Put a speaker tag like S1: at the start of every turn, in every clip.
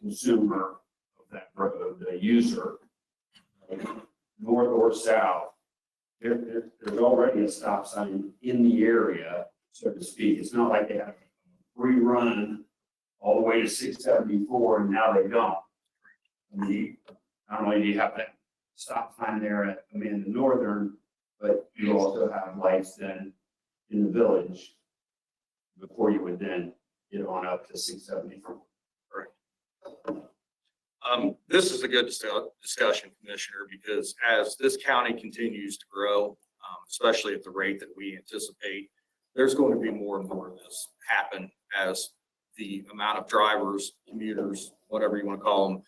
S1: consumer of that road, the user, um, north or south, there, there, there's already a stop sign in the area, so to speak. It's not like they have free run all the way to six seventy-four and now they don't. I mean, not only do you have that stop sign there at Amanda Northern, but you also have lights then in the village before you would then get on up to six seventy-four.
S2: Um, this is a good discu- discussion, Commissioner, because as this county continues to grow, um, especially at the rate that we anticipate, there's going to be more and more of this happen as the amount of drivers, commuters, whatever you want to call them,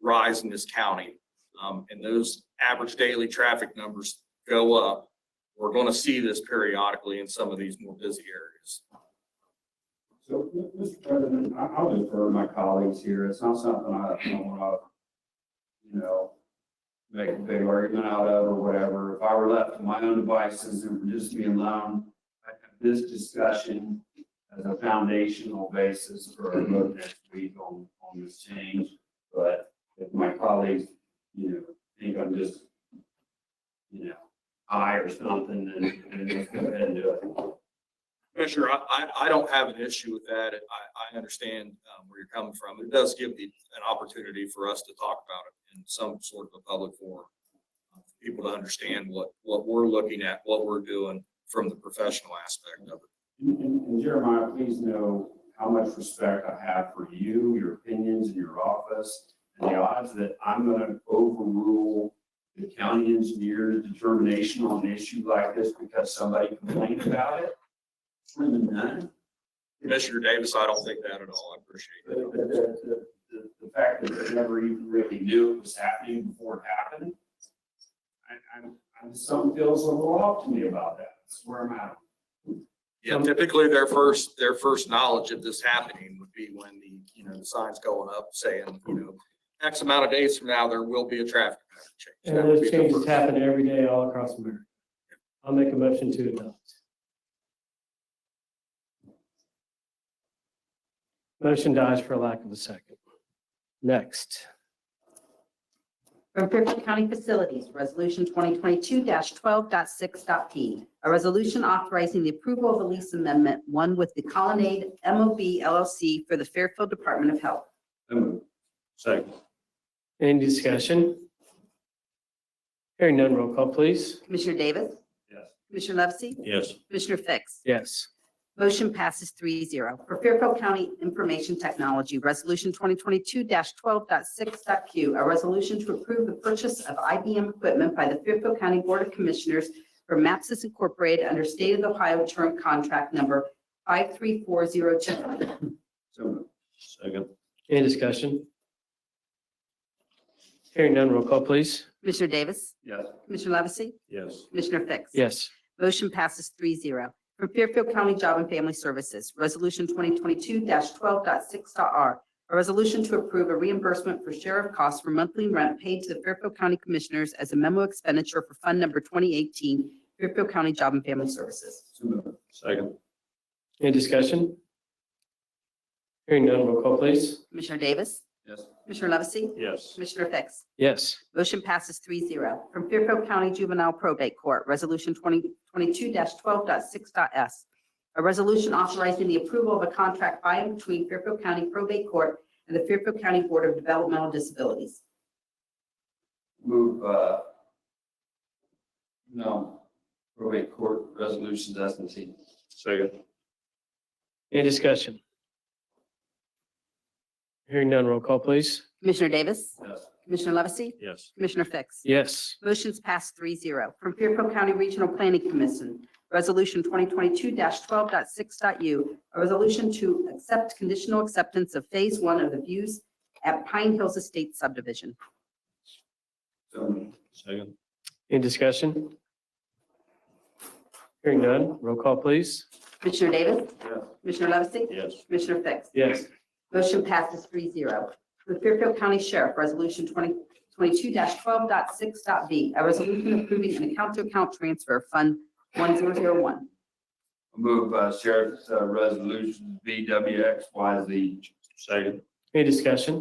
S2: rise in this county. Um, and those average daily traffic numbers go up. We're going to see this periodically in some of these more busy areas.
S1: So, m- Mr. President, I- I'll defer to my colleagues here. It's not something I I don't want to, you know, make a big argument out of or whatever. If I were left to my own devices and for just me alone, I have this discussion as a foundational basis for our vote next week on, on this change. But if my colleagues, you know, think I'm just, you know, high or something, then then just go ahead and do it.
S2: Commissioner, I, I, I don't have an issue with that. I, I understand um, where you're coming from. It does give the, an opportunity for us to talk about it in some sort of a public forum. Uh, for People to understand what, what we're looking at, what we're doing from the professional aspect of it.
S1: And- And and Jeremiah, please know how much respect I have for you, your opinions, and your office. And the odds that I'm gonna overrule the county engineer's determination on an issue like this because somebody complained about it, slim and none.
S2: Commissioner Davis, I don't think that at all. I
S1: The,
S2: appreciate
S1: the,
S2: it.
S1: the- the, the, the fact that they never even really knew it was happening before it happened. I, I'm, I'm, something feels a little off to me about that. That's where I'm at.
S2: Yeah,
S3: Um,
S2: typically their first, their first knowledge of this happening would be when the, you know, the sign's going up saying, you know, X amount of days from now, there will be a traffic pattern change.
S3: And
S2: That would
S3: those
S2: be the
S3: changes
S2: first.
S3: happen every day all across America. I'll make a motion to adopt. Motion dies for lack of a second. Next,
S4: From Fairfield County Facilities, Resolution 2022-12.6.p. A resolution authorizing the approval of a lease amendment, one with the Colonnade MOB LLC for the Fairfield Department of Health.
S1: Second.
S3: any discussion? Hearing none, roll call, please.
S4: Commissioner Davis?
S1: Yes.
S4: Commissioner Levesey?
S1: Yes.
S4: Commissioner Fix?
S3: Yes.
S4: Motion passes 3-0 For Fairfield County Information Technology, Resolution 2022-12.6.q, a resolution to approve the purchase of IBM equipment by the Fairfield County Board of Commissioners for Mapsys Incorporated under State of Ohio Term Contract Number 53402.
S1: So moved. Second.
S3: Any discussion? Hearing none, roll call, please.
S4: Commissioner Davis?
S1: Yes.
S4: Commissioner Levesey?
S1: Yes.
S4: Commissioner Fix?
S3: Yes.
S4: Motion passes 3-0 From Fairfield County Job and Family Services, Resolution 2022-12.6.r. A resolution to approve a reimbursement for sheriff costs for monthly rent paid to the Fairfield County Commissioners as a memo expenditure for Fund Number 2018, Fairfield County Job and Family Services.
S1: So moved. Second.
S3: Any discussion? Hearing none, roll call, please.
S4: Commissioner Davis?
S1: Yes.
S4: Commissioner Levesey?
S1: Yes.
S4: Commissioner Fix?
S3: Yes.
S4: Motion passes 3-0 From Fairfield County Juvenile Probate Court, Resolution 2022-12.6.s. A resolution authorizing the approval of a contract by and between Fairfield County Probate Court and the Fairfield County Board of Developmental Disabilities.
S1: Move, uh, no, probate court resolutions as contained. Second.
S3: Any discussion? Hearing none, roll call, please.
S4: Commissioner Davis?
S1: Yes.
S4: Commissioner Levesey?
S1: Yes.
S4: Commissioner Fix?
S3: Yes.
S4: Motion's passed 3-0 From Fairfield County Regional Planning Commission, Resolution 2022-12.6.u, a resolution to accept conditional acceptance of Phase 1 of the views at Pine Hills Estate subdivision.
S1: So moved. Second.
S3: Any discussion? Hearing none, roll call, please.
S4: Commissioner Davis?
S1: Yes.
S4: Commissioner Levesey?
S1: Yes.
S4: Commissioner Fix?
S3: Yes.
S4: Motion passes three zero. The Fairfield County Sheriff, Resolution 2022-12.6.v, a resolution approving an account-to-account transfer of Fund 1001.
S1: Move, uh, sheriff's, uh, resolution BWXYZ. Second.
S3: Any discussion?